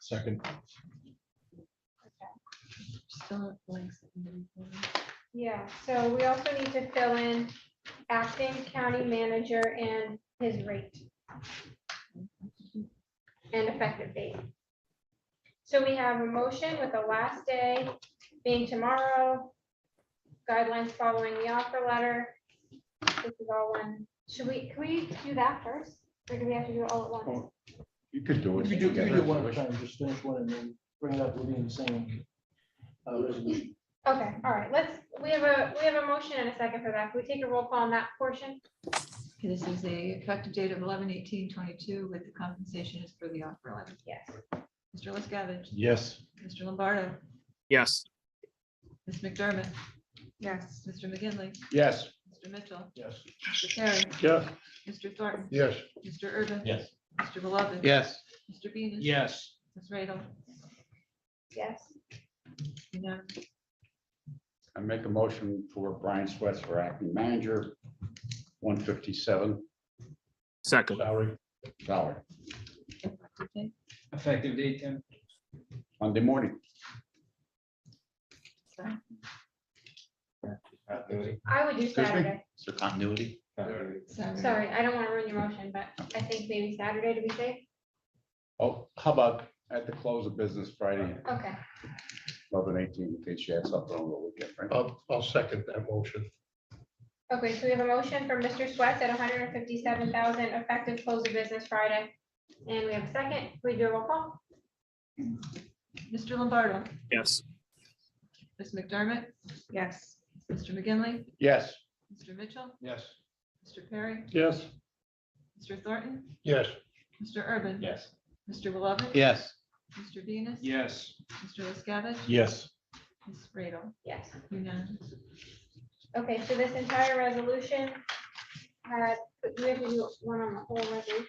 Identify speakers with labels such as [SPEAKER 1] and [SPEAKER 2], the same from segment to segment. [SPEAKER 1] Second.
[SPEAKER 2] Still blanks. that you didn't fill
[SPEAKER 3] Yeah, so we also need to fill in acting county manager and his rate. And effective date. So we have a motion with the last day being tomorrow. Guidelines following the offer letter. This is all one. Should we, can we do that first? Or do we have to do it all at once?
[SPEAKER 1] You could do it.
[SPEAKER 4] You do, you
[SPEAKER 1] together
[SPEAKER 4] do
[SPEAKER 1] if
[SPEAKER 4] one at
[SPEAKER 1] wish.
[SPEAKER 4] a time, just finish one and then bring it up within the same. uh, resolution.
[SPEAKER 3] Okay, all right, let's, we have a, we have a motion and a second for that. Can we take a roll call on that portion?
[SPEAKER 2] in. Okay, This is the effective date of eleven eighteen twenty-two with the compensation is for the offer letter.
[SPEAKER 3] Yes.
[SPEAKER 2] Mr. Liscavige,
[SPEAKER 1] Yes.
[SPEAKER 2] Mr. Lombardo,
[SPEAKER 5] yes,
[SPEAKER 2] Ms. McDermott. Yes. Mr. McGinley,
[SPEAKER 1] Yes.
[SPEAKER 2] Mr. Mitchell,
[SPEAKER 4] Yes.
[SPEAKER 2] Mr. Terry,
[SPEAKER 1] Yeah.
[SPEAKER 2] Mr. Thornton,
[SPEAKER 1] Yes.
[SPEAKER 2] Mr. Urban.
[SPEAKER 1] Yes.
[SPEAKER 2] Mr. Beloved.
[SPEAKER 1] Yes.
[SPEAKER 2] Mr. Venus.
[SPEAKER 1] Yes.
[SPEAKER 2] Ms. Radel.
[SPEAKER 3] Yes.
[SPEAKER 2] unanimous.
[SPEAKER 1] I make a motion for Brian Swets for acting manager, one fifty-seven
[SPEAKER 5] second,
[SPEAKER 1] salary, salary,
[SPEAKER 2] Okay,
[SPEAKER 4] Effective date, Tim?
[SPEAKER 1] Monday morning.
[SPEAKER 2] so
[SPEAKER 3] I would do
[SPEAKER 1] Excuse me?
[SPEAKER 3] Saturday.
[SPEAKER 1] Is there continuity?
[SPEAKER 2] Saturday.
[SPEAKER 3] Sorry, I don't want to ruin your motion, but I think maybe Saturday to be safe.
[SPEAKER 1] Oh, how about at the close of business Friday,
[SPEAKER 3] Okay,
[SPEAKER 1] eleven eighteen, in case you had something on the weekend, right?
[SPEAKER 6] I'll, I'll second that motion.
[SPEAKER 3] okay, so we have a motion from Mr. Swett at hundred and fifty-seven thousand effective close of business Friday. And we have a second, we do a roll call?
[SPEAKER 2] Mr. Lombardo,
[SPEAKER 5] yes,
[SPEAKER 2] Ms. McDermott. Yes. Mr. McGinley,
[SPEAKER 1] Yes.
[SPEAKER 2] Mr. Mitchell,
[SPEAKER 1] Yes.
[SPEAKER 2] Mr. Perry,
[SPEAKER 1] Yes.
[SPEAKER 2] Mr. Thornton,
[SPEAKER 6] Yes,
[SPEAKER 2] Mr. Urban.
[SPEAKER 1] Yes.
[SPEAKER 2] Mr. Beloved.
[SPEAKER 1] Yes.
[SPEAKER 2] Mr. Venus.
[SPEAKER 4] Yes.
[SPEAKER 2] Mr. Liscavige.
[SPEAKER 1] Yes.
[SPEAKER 2] Ms. Radel.
[SPEAKER 3] Yes.
[SPEAKER 2] Unanimous.
[SPEAKER 3] Okay, so this entire resolution had, but we have to do one on the whole resolution.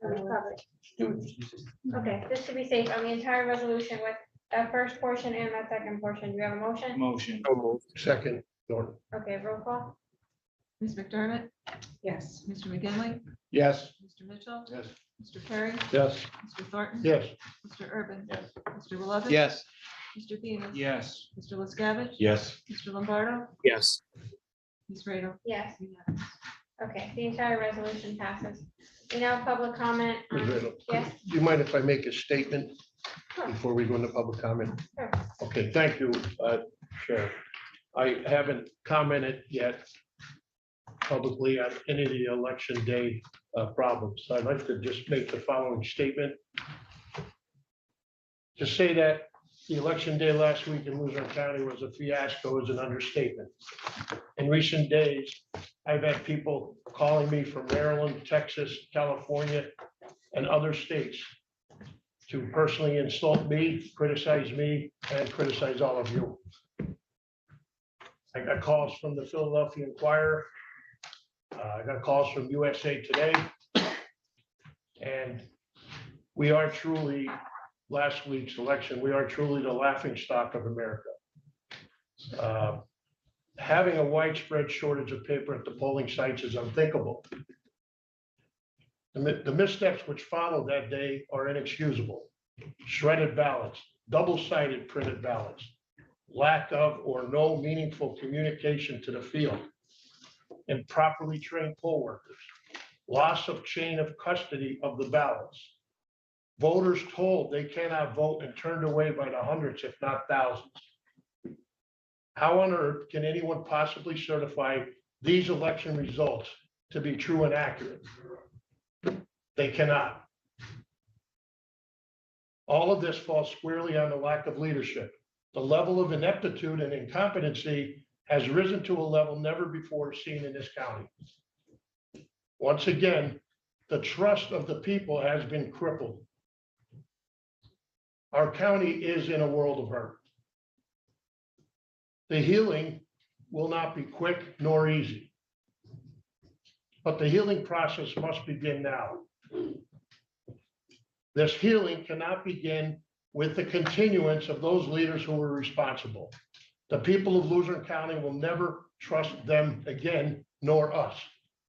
[SPEAKER 3] Or we cover it? Okay, just to be safe, on the entire resolution with that first portion and that second portion, do you have a motion?
[SPEAKER 4] Motion.
[SPEAKER 5] so moved,
[SPEAKER 6] second, Norton.
[SPEAKER 3] Okay, roll call?
[SPEAKER 2] Ms. McDermott. Yes. Mr. McGinley,
[SPEAKER 1] Yes.
[SPEAKER 2] Mr. Mitchell,
[SPEAKER 1] Yes.
[SPEAKER 2] Mr. Perry,
[SPEAKER 1] Yes.
[SPEAKER 2] Mr. Thornton.
[SPEAKER 6] Yes,
[SPEAKER 2] Mr. Urban.
[SPEAKER 1] Yes.
[SPEAKER 2] Mr. Beloved.
[SPEAKER 1] Yes.
[SPEAKER 2] Mr. Venus.
[SPEAKER 4] Yes.
[SPEAKER 2] Mr. Liscavige.
[SPEAKER 1] Yes.
[SPEAKER 2] Mr. Lombardo,
[SPEAKER 5] yes,
[SPEAKER 2] Ms. Radel.
[SPEAKER 3] Yes.
[SPEAKER 2] Unanimous.
[SPEAKER 3] Okay, the entire resolution passes. We now have public comment.
[SPEAKER 6] Ms. Riddle.
[SPEAKER 3] Um, Yes.
[SPEAKER 6] Do you mind if I make a statement
[SPEAKER 3] Sure.
[SPEAKER 6] before we go into public comment?
[SPEAKER 3] Sure.
[SPEAKER 6] Okay, thank you, uh, Sheriff. I haven't commented yet publicly on any of the election day uh, problems. So I'd like to just make the following statement. To say that the election day last week in Luzerne County was a fiasco is an understatement. In recent days, I've had people calling me from Maryland, Texas, California, and other states to personally insult me, criticize me, and criticize all of you. I got calls from the Philadelphia Inquirer. uh, I got calls from USA Today. And we are truly, last week's election, we are truly the laughingstock of America. Uh, Having a widespread shortage of paper at the polling sites is unthinkable. The mi- the missteps which followed that day are inexcusable. Shredded ballots, double-sided printed ballots, lack of or no meaningful communication to the field, improperly trained poll workers, loss of chain of custody of the ballots, voters told they cannot vote and turned away by the hundreds, if not thousands. How on earth can anyone possibly certify these election results to be true and accurate? They cannot. All of this falls squarely on the lack of leadership. The level of ineptitude and incompetency has risen to a level never before seen in this county. Once again, the trust of the people has been crippled. Our county is in a world of hurt. The healing will not be quick nor easy. But the healing process must begin now. This healing cannot begin with the continuance of those leaders who were responsible. The people of Luzerne County will never trust them again, nor us.